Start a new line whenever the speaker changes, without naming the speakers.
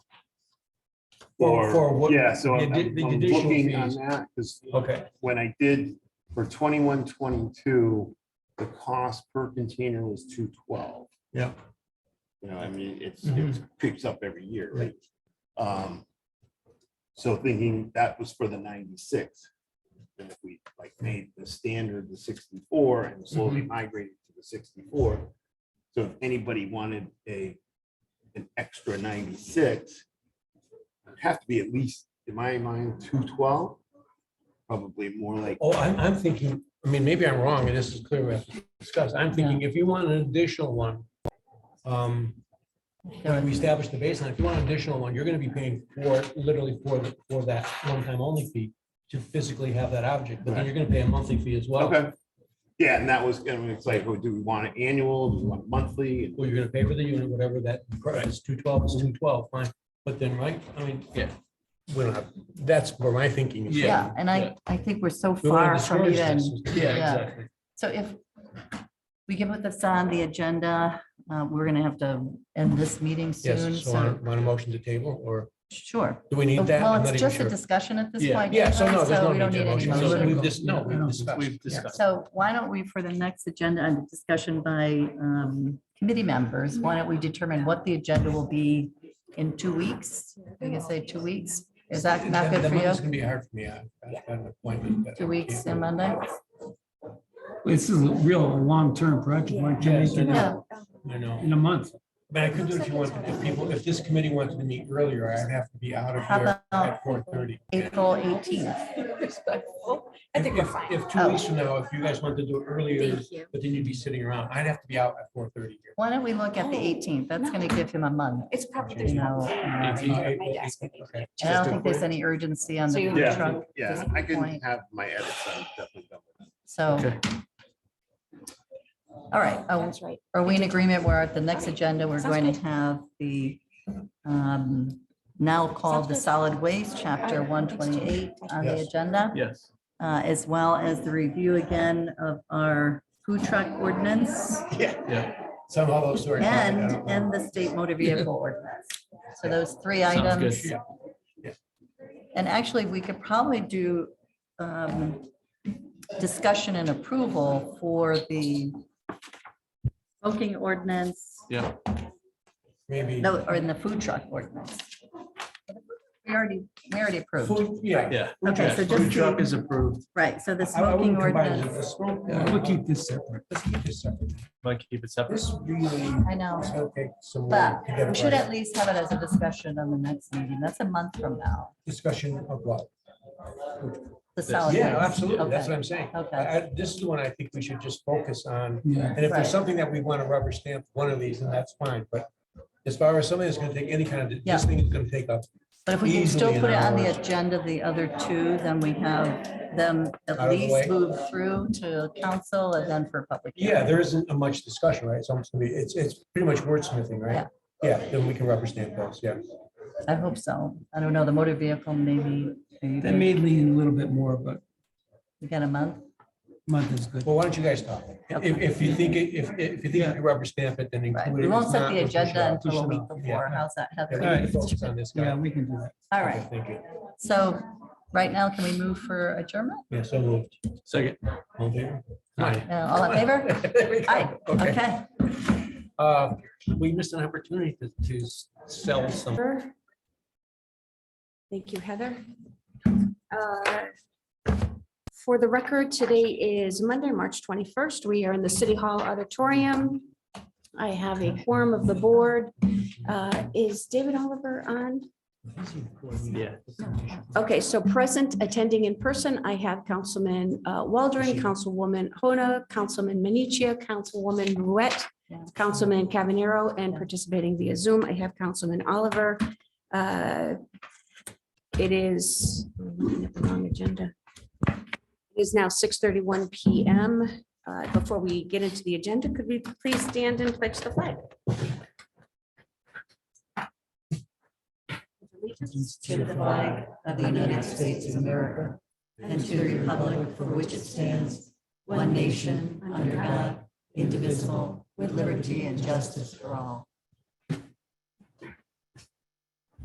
Or-
for what-
Yeah, so
the
I'm
addi- the
I'm
additional
looking on
fees.
that, because
Okay,
when I did for twenty-one, twenty-two, the cost per container was two twelve.
yeah,
You know, I mean, it's,
Mhm.
it creeps up every year, right? Um, so thinking that was for the ninety-six. And if we like made the standard the sixty-four and slowly migrated to the sixty-four. So if anybody wanted a, an extra ninety-six, it'd have to be at least, in my mind, two twelve, probably more like
oh, I'm, I'm thinking, I mean, maybe I'm wrong, and this is clear we have to discuss, I'm thinking if you want an additional one. Um, and we establish the baseline, if you want an additional one, you're gonna be paying for, literally for, the- for that one-time only fee. To physically have that object, but then you're gonna pay a monthly fee as well.
Okay. Yeah, and that was, and it's like, oh, do we want it annual? Do we want it monthly?
Well, you're gonna pay for the unit, whatever that price, is, two twelve is two twelve, fine, but then, right, I mean, yeah. We don't have, that's where my thinking is.
Yeah,
going.
and I,
yeah.
I think we're so
We wanna
far from
discourage
even,
this.
Yeah,
Yeah.
exactly.
so if we can put this on the agenda, uh, we're gonna have to end this meeting soon,
Yes, so on,
so,
on a motion to table, or
sure.
do we need that?
Oh, Well,
I'm not
it's
even
just a
sure.
discussion at this
Yeah.
point.
Yeah, so no,
anyway,
there's no
we don't
need to
need any
motion,
motion.
so
motion.
we've just, no, we've
We've
discussed. yeah.
discussed.
So why don't we, for the next agenda and discussion by um, committee members, why don't we determine what the agenda will be in two weeks? I guess say two weeks. Is that not
The-
good
the
for
Monday's
you?
gonna be hard for me, I've I've got an appointment. that I
Two weeks
can't-
and Monday?
This is a real long-term project. Why can't we do that
Yeah,
I know,
in a month?
but I could do it if you want, if people, if this committee wanted to meet earlier, I'd have to be out of
How
here at
about
four thirty.
April eighteenth.
respectful. I think we're
If,
fine.
if two
Oh.
weeks from now, if you guys want to do it earlier,
Thank you.
but then you'd be sitting around, I'd have to be out at four thirty here.
Why don't we look at the
Oh,
eighteenth? That's gonna give him a month.
It's probably,
You
there's
know,
probably.
uh,
Eighteenth.
something on my desk.
Okay.
and I don't think there's any urgency on
So
the
you-
food
Yeah.
truck,
Yeah, I can have my edits. I'm definitely done with
so. All right, oh,
That's right.
are we in agreement where at the next agenda, we're going to have the um, now called the solid waste chapter one twenty-eight on the
Yes.
agenda,
Yes.
uh, as well as the review again of our food truck ordinance
Somehow those two are. combined, I
and,
don't know.
and the state motor vehicle ordinance. So those three
Sounds good.
items. And actually, we could probably do um, discussion and approval for the smoking ordinance,
Yeah,
Maybe.
no, or in the food truck ordinance. We already, we already approved,
Food- Yeah.
yeah.
Okay, so
Yeah,
just
Food truck
the-
is approved.
right, so the
I- I
smoking
wouldn't combine it.
ordinance,
The smoke-
Yeah, We'll keep this separate.
Let's keep this separate.
Might keep it separate.
This really
I know,
is gonna take some.
but
work to get
we
it
should
right.
at least have it as a discussion on the next meeting, that's a month from now,
Discussion of what?
the
This.
solid
Yeah,
waste.
absolutely. That's
Oh, Okay.
what I'm saying.
Okay.
I- I- This is the one I think we should just focus on.
Yeah.
And if
Right.
there's something that we want to rubber stamp one of these, then that's fine. But as far as something that's going to take any kind of,
Yeah.
this thing is going to take up.
But if we can still
Easily an
put it on the
hour.
agenda, the other two, then we have them
Out
at
of the way.
least move through to council and then for public. hearing.
Yeah, there isn't a much discussion, right? It's almost going to be, it's, it's pretty much wordsmithing, right? Yeah, then we can rubber stamp those, yeah.
I hope so. I don't know, the motor vehicle, maybe,
That
maybe
may lean a little bit more, but
we got a month.
month is good.
Well, why don't you guys talk? If, if you think, it- if, if you think you can rubber stamp it, then
Right.
include it.
We
If
won't
not,
set the
we'll push it
agenda
off.
until a
push it
week
off,
yeah.
before. How's that,
Yeah,
Heather?
we need to focus on this
Yeah,
guy.
we can do that.
All right.
Thank you.
So right now, can we move for adjournment?
Yeah, so moved.
Second.
All in favor? Aye.
Uh, All in favor?
There we go.
Aye. Okay.
Uh, We missed an opportunity to, to s- sell some.
Thank you, Heather. Uh, For the record, today is Monday, March 21st. We are in the City Hall Auditorium. I have a quorum of the board. Uh, Is David Oliver on?
Yeah.
Okay, so present, attending in person, I have Councilman uh, Waldron, Councilwoman Hona, Councilman Manichia, Councilwoman Ruette,
Yeah.
Councilman Cavanero, and participating via Zoom, I have Councilman Oliver. Uh, It is, I'm looking at the wrong agenda. It is now 6:31 PM. Uh, Before we get into the agenda, could we please stand and pledge the flag?
allegiance to the flag of the United States of America and to the republic for which it stands, one nation, under God, indivisible, with liberty and justice for all.